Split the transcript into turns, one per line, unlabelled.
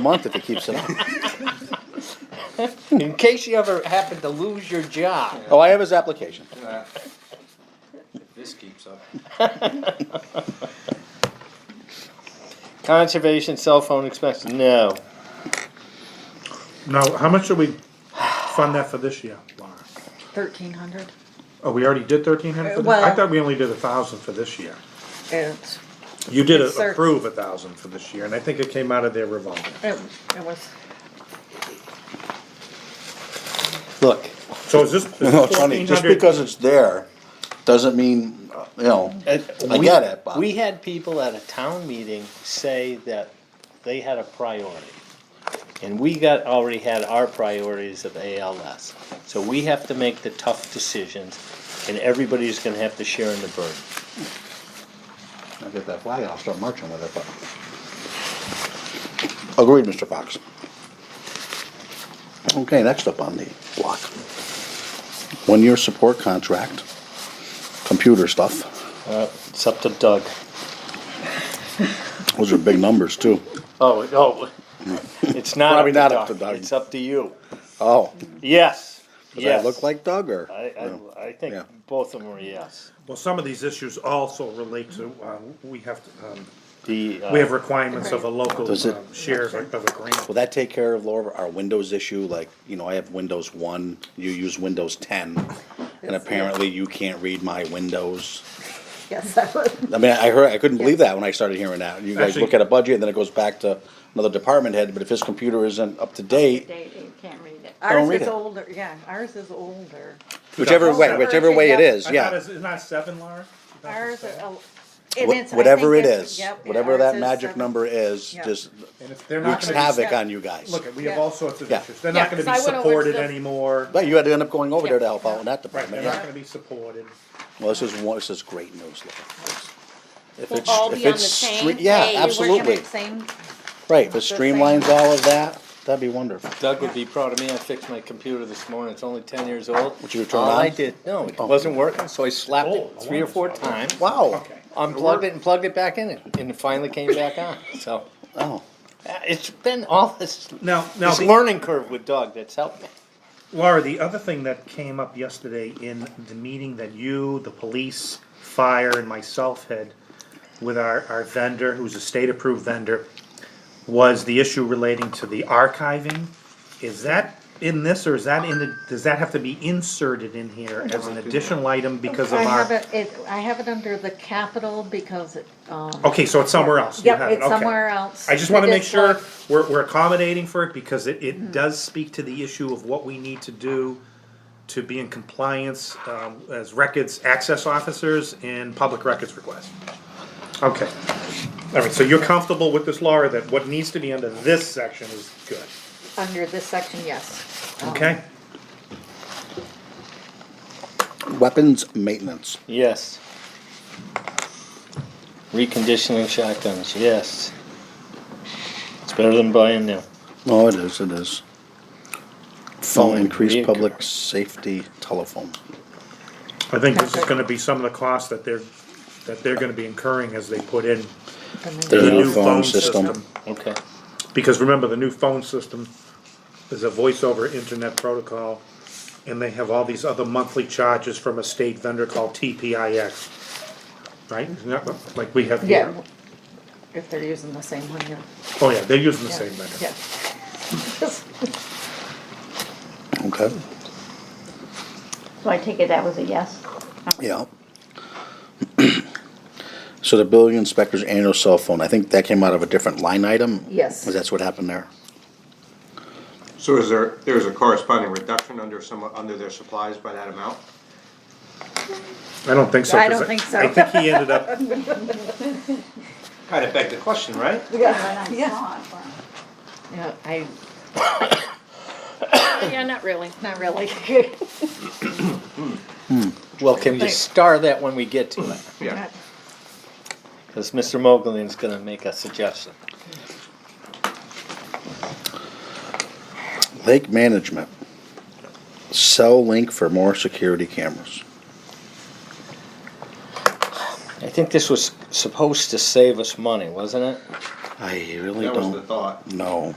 month if it keeps it up.
In case you ever happen to lose your job.
Oh, I have his application.
If this keeps up.
Conservation cell phone expense, no.
Now, how much did we fund that for this year, Laura?
Thirteen hundred.
Oh, we already did thirteen hundred for
Uh,
this, I
well-
thought we only did a thousand for this year.
It,
You did
It's thir-
approve a thousand for this year, and I think it came out of their revolving.
it, it was,
Look,
So is this
you know, it's funny,
fourteen
just
hundred?
because it's there, doesn't mean, uh, you know, I
We-
get it, but
We had people at a town meeting say that they had a priority. And we got, already had our priorities of ALS. So we have to make the tough decisions and everybody's gonna have to share in the burden.
I'll get that flag, I'll start marching with it, but. Agreed, Mr. Fox. Okay, next up on the block. One-year support contract, computer stuff,
Uh, It's up to Doug.
those are big numbers too.
Oh, oh, it's not
Probably
up
not
to
up to
Doug,
Doug.
it's up to you.
Oh,
Yes,
does that
yes.
look like Doug or?
I,
No.
I, I think
Yeah.
both of them are yes.
Well, some of these issues also relate to, uh, we have, to, um,
The, uh,
we have requirements of a local
Does it-
um, share of a grant.
Will that take care of Laura, our Windows issue, like, you know, I have Windows one, you use Windows ten, and apparently you can't read my Windows.
yes, that was,
I mean, I heard, I couldn't believe that when I started hearing that, you guys
Actually-
look at a budget, and then it goes back to another department head, but if his computer isn't up to date,
Date, you can't read it.
don't
ours
read
is
it.
older, yeah, ours is older.
whichever way,
Well,
whichever way it
yeah.
is, yeah.
Isn't that seven, Laura?
Ours, is el-
Wh-
and it's- I
Whatever
think
it
it's-
is, uh,
yep, and
whatever
ours
that
is
magic
seven.
number is,
Yeah.
just
And if they're not
wreaks
gonna
havoc
be,
on you guys.
look, we have
Yeah.
all sorts of
Yeah.
issues, they're not
Yeah,
gonna
'cause
be
I went over to
supported
the-
anymore,
But you had to end up going over there to
Yeah.
help out in that
right, they're
department,
not
yeah.
gonna be supported.
Well, this is one, this is great news, Laura. If
We'll
it's-
all
if
be on the
it's
same
stre-
page.
Yeah,
Hey, you working
absolutely.
at the same,
Right, if it
The
streamlines
same.
all of that, that'd be wonderful.
Doug would be proud of me. I fixed my computer this morning. It's only ten years old.
What you turn
All
on?
I did, no, it
Oh.
wasn't working, so I slapped
Oh,
it
I
three or
wonder.
four times.
Wow.
Okay.
Unplugged it and plugged it back in, and and it finally came back on. So
Oh,
uh, it's been all this
Now, now.
this
the-
learning curve with Doug that's helped me.
Laura, the other thing that came up yesterday in the meeting that you, the police, fire, and myself had with our, our vendor, who's a state-approved vendor, was the issue relating to the archiving. Is that in this, or is that in the, does that have to be inserted in here as an additional item because of
I have
our?
it, it, I have it under the capital because it, um,
Okay, so it's somewhere else. You
Yep,
have it,
it's
okay.
somewhere else.
I just wanna
It
make
is
sure
like-
we're, we're accommodating for it, because it, it does speak to the issue of what we need to do to be in compliance, um, as records access officers and public records requests. Okay, all right, so you're comfortable with this, Laura, that what needs to be under this section is good,
under this section, yes. Um,
okay?
weapons maintenance.
Yes. Reconditioning shotguns. Yes. It's better than buying new.
Oh, it is, it is. Phone, increased
vehicle.
public safety telephone.
I think this is gonna be some of the costs that they're, that they're gonna be incurring as they put in
and then-
There's no
the new
phone
phone
system.
system.
Okay.
Because remember, the new phone system is a voice over internet protocol, and they have all these other monthly charges from a state vendor called TPIX. Right, Isn't that what- like we have
Yeah,
here?
if they're using the same one, yeah.
Oh, yeah, they're using the
Yeah,
same vendor.
yeah.
Okay,
So I take it that was a yes?
yeah. So the building inspector's annual cell phone, I think that came out of a different line item?
Yes.
Is that's what happened there?
So is there, there's a corresponding reduction under some, under their supplies by that amount?
I don't think so.
I
'cause
don't think so.
I think he ended up,
Kind of begged the question, right?
Yeah, I,
Yeah, not really.
not really.
Well, can you star that when we get to it?
Yeah.
Because Mr. Mogulyn is going to make a suggestion.
Lake management. Cell link for more security cameras.
I think this was supposed to save us money, wasn't it?
I really
That was the
don't
thought.
know.